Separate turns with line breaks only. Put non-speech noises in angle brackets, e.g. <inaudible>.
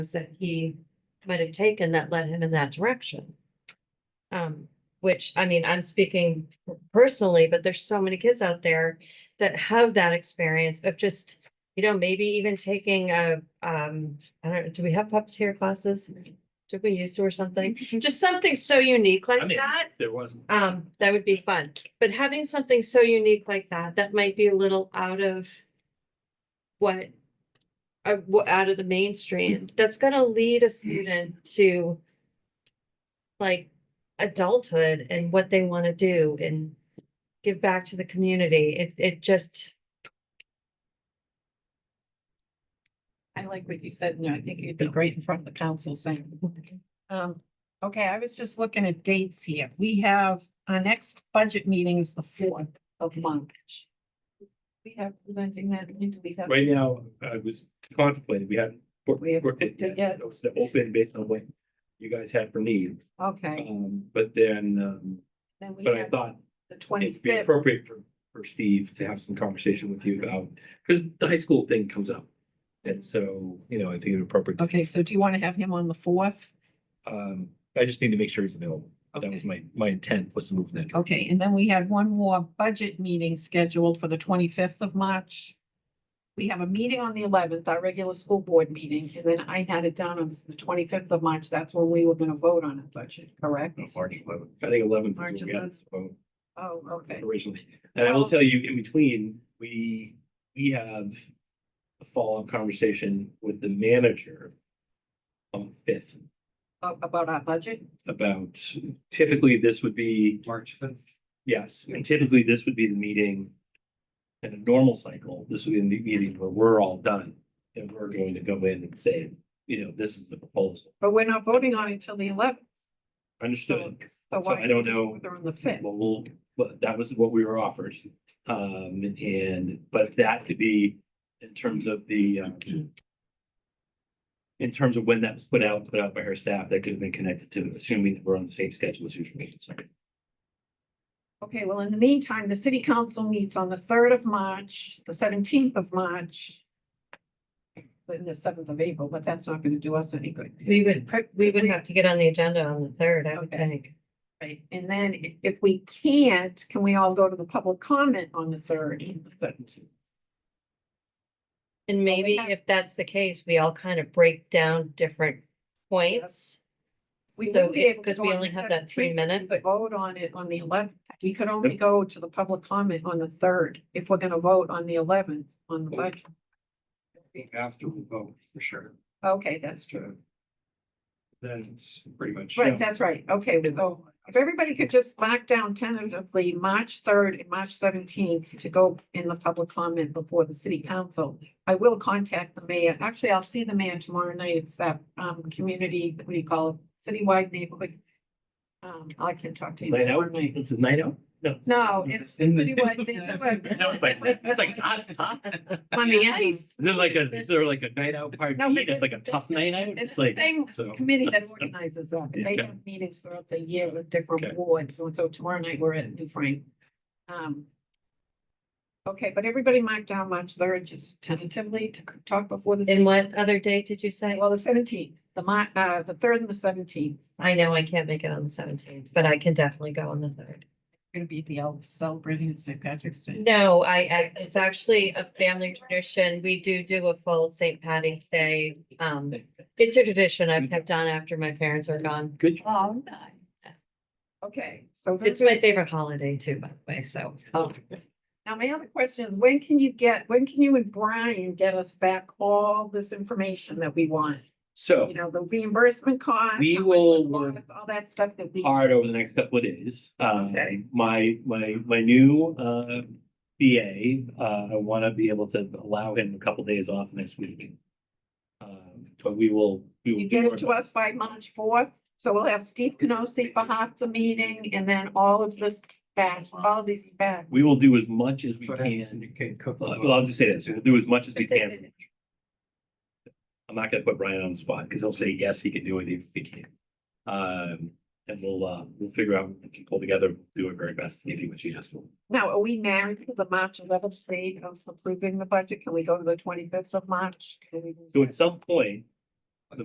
that he might have taken that led him in that direction. Um, which, I mean, I'm speaking personally, but there's so many kids out there that have that experience of just, you know, maybe even taking a, um, I don't, know, do we have puppeteer classes? Did we used to or something? Just something so unique
Mm-hmm. I
like
mean-
that.
There wasn't.
Um, that would be fun, but having something so unique like that, that might be a little out of what uh, wha- out of the mainstream, that's gonna lead a student to like adulthood and what they wanna do and give back to the community. It, it just,
I like what you said, and I think it'd be great in front of the council saying. Um, okay, I was just looking at dates here. We have, our next budget meeting is the fourth of March. We have presenting that, do we have?
Right now, I was contemplating, we hadn't booked
We haven't
booked it
booked it
yet.
yet.
It was the open based on what you guys had for need.
Okay,
Um, but then, um,
then we
but I
have
thought
the
it'd be
twenty-fifth.
appropriate for, for Steve to have some conversation with you about, because the high school thing comes up. And so, you know, I think it's appropriate. to-
Okay, so do you want to have him on the fourth?
Um, I just need to make sure he's available. That was
Okay.
my, my intent was to move that.
Okay, and then we had one more budget meeting scheduled for the twenty-fifth of March. We have a meeting on the eleventh, our regular school board meeting, and then I had it down on the twenty-fifth of March. That's when we were gonna vote on a budget, correct?
No, March eleventh, I think eleven.
March 11th. Oh, okay.
originally. And I will
Well-
tell you, in between, we, we have a follow-up conversation with the manager on the fifth
A- oh, About our budget?
about typically this would be,
March fifth.
yes, and typically this would be the meeting in a normal cycle, this would be the meeting where we're all done and we're going to go in and say, you know, this is the proposal.
But we're not voting on it until the eleventh.
Understood.
So
So
why?
I don't know.
They're on the fifth.
Well, we'll, but that was what we were offered. Um, and, but that could be in terms of the, um, in terms of when that was put out, put out by her staff, that could have been connected to, assuming that we're on the same schedule as usual. So
Okay, well, in the meantime, the city council meets on the third of March, the seventeenth of March. Then the seventh of April, but that's not gonna do us any good.
we would, we would have to get on the agenda on the third, I would
Okay.
think.
Right, and then i- if we can't, can we all go to the public comment on the third and the seventeenth?
And
Well, we
maybe
have-
if that's the case, we all kind of break down different points.
We
So,
wouldn't be
it-
able to
because
go
we
on
only
the
have that three
17th,
minutes.
but Vote on it on the eleventh. We could only go to the public comment on the third if we're gonna vote on the eleventh on the budget.
After we vote, for sure.
Okay, that's true.
Then it's pretty much.
Right, that's right. Okay, so if everybody could just mark down tentatively March third and March seventeenth to go in the public comment before the city council. I will contact the mayor. Actually, I'll see the mayor tomorrow night. It's that um community, what do you call it, citywide neighborhood. Um, I can talk to you
Night
tomorrow
out?
night.
This is night out? No.
No, it's
In the-
citywide
No, it's like, it's like,
neighborhood.
ah, it's tough. Is
On the ice.
there like a, is there like a night out party?
No, but
That's like a tough night out?
It's
It's
the
like,
same
so.
committee
<laughs>
that organizes that. and They
Yeah.
have meetings throughout the year with
Okay.
different boards. So, so tomorrow night we're at New Frank. Um. Okay, but everybody marked down March third, just tentatively to c- talk before the.
And what other date did you say?
Well, the seventeenth, the Mar- uh, the third and the seventeenth,
I know I can't make it on the seventeenth, but I can definitely go on the third.
gonna be the el- celebrating St. Patrick's Day.
No, I, I, it's actually a family tradition. We do do a full St. Patty's Day. Um, it's a tradition I've kept on after my parents are gone.
Good. job.
Oh, nice. Okay, so.
It's
then-
my favorite holiday too, by the way, so.
Oh,
Oh,
um,
Now, my other question is, when can you get, when can you and Brian get us back all this information that we want?
So.
you know, the reimbursement cost.
We
how much
will
it
work
costs, All that stuff that we.
hard over the next couple of days. Um,
Okay.
my, my, my new, uh, BA, uh, I want to be able to allow him a couple days off next week. Um, But we will. we will do
You get
our
it to us
best.
by March fourth, so we'll have Steve Canosi for half the meeting and then all of this back, all these back.
We will do as much as we
That's what happens when you
can.
can't cook.
Uh, Well, I'll just say this, we'll do as much as we can. I'm not gonna put Brian on the spot because he'll say, yes, he can do it if he can. Um, and we'll, uh, we'll figure out, we can pull together, do our very best to give you what you asked for.
Now, are we married to the March eleventh date of approving the budget? Can we go to the twenty-fifth of March? Can we do
So
that?
at some point,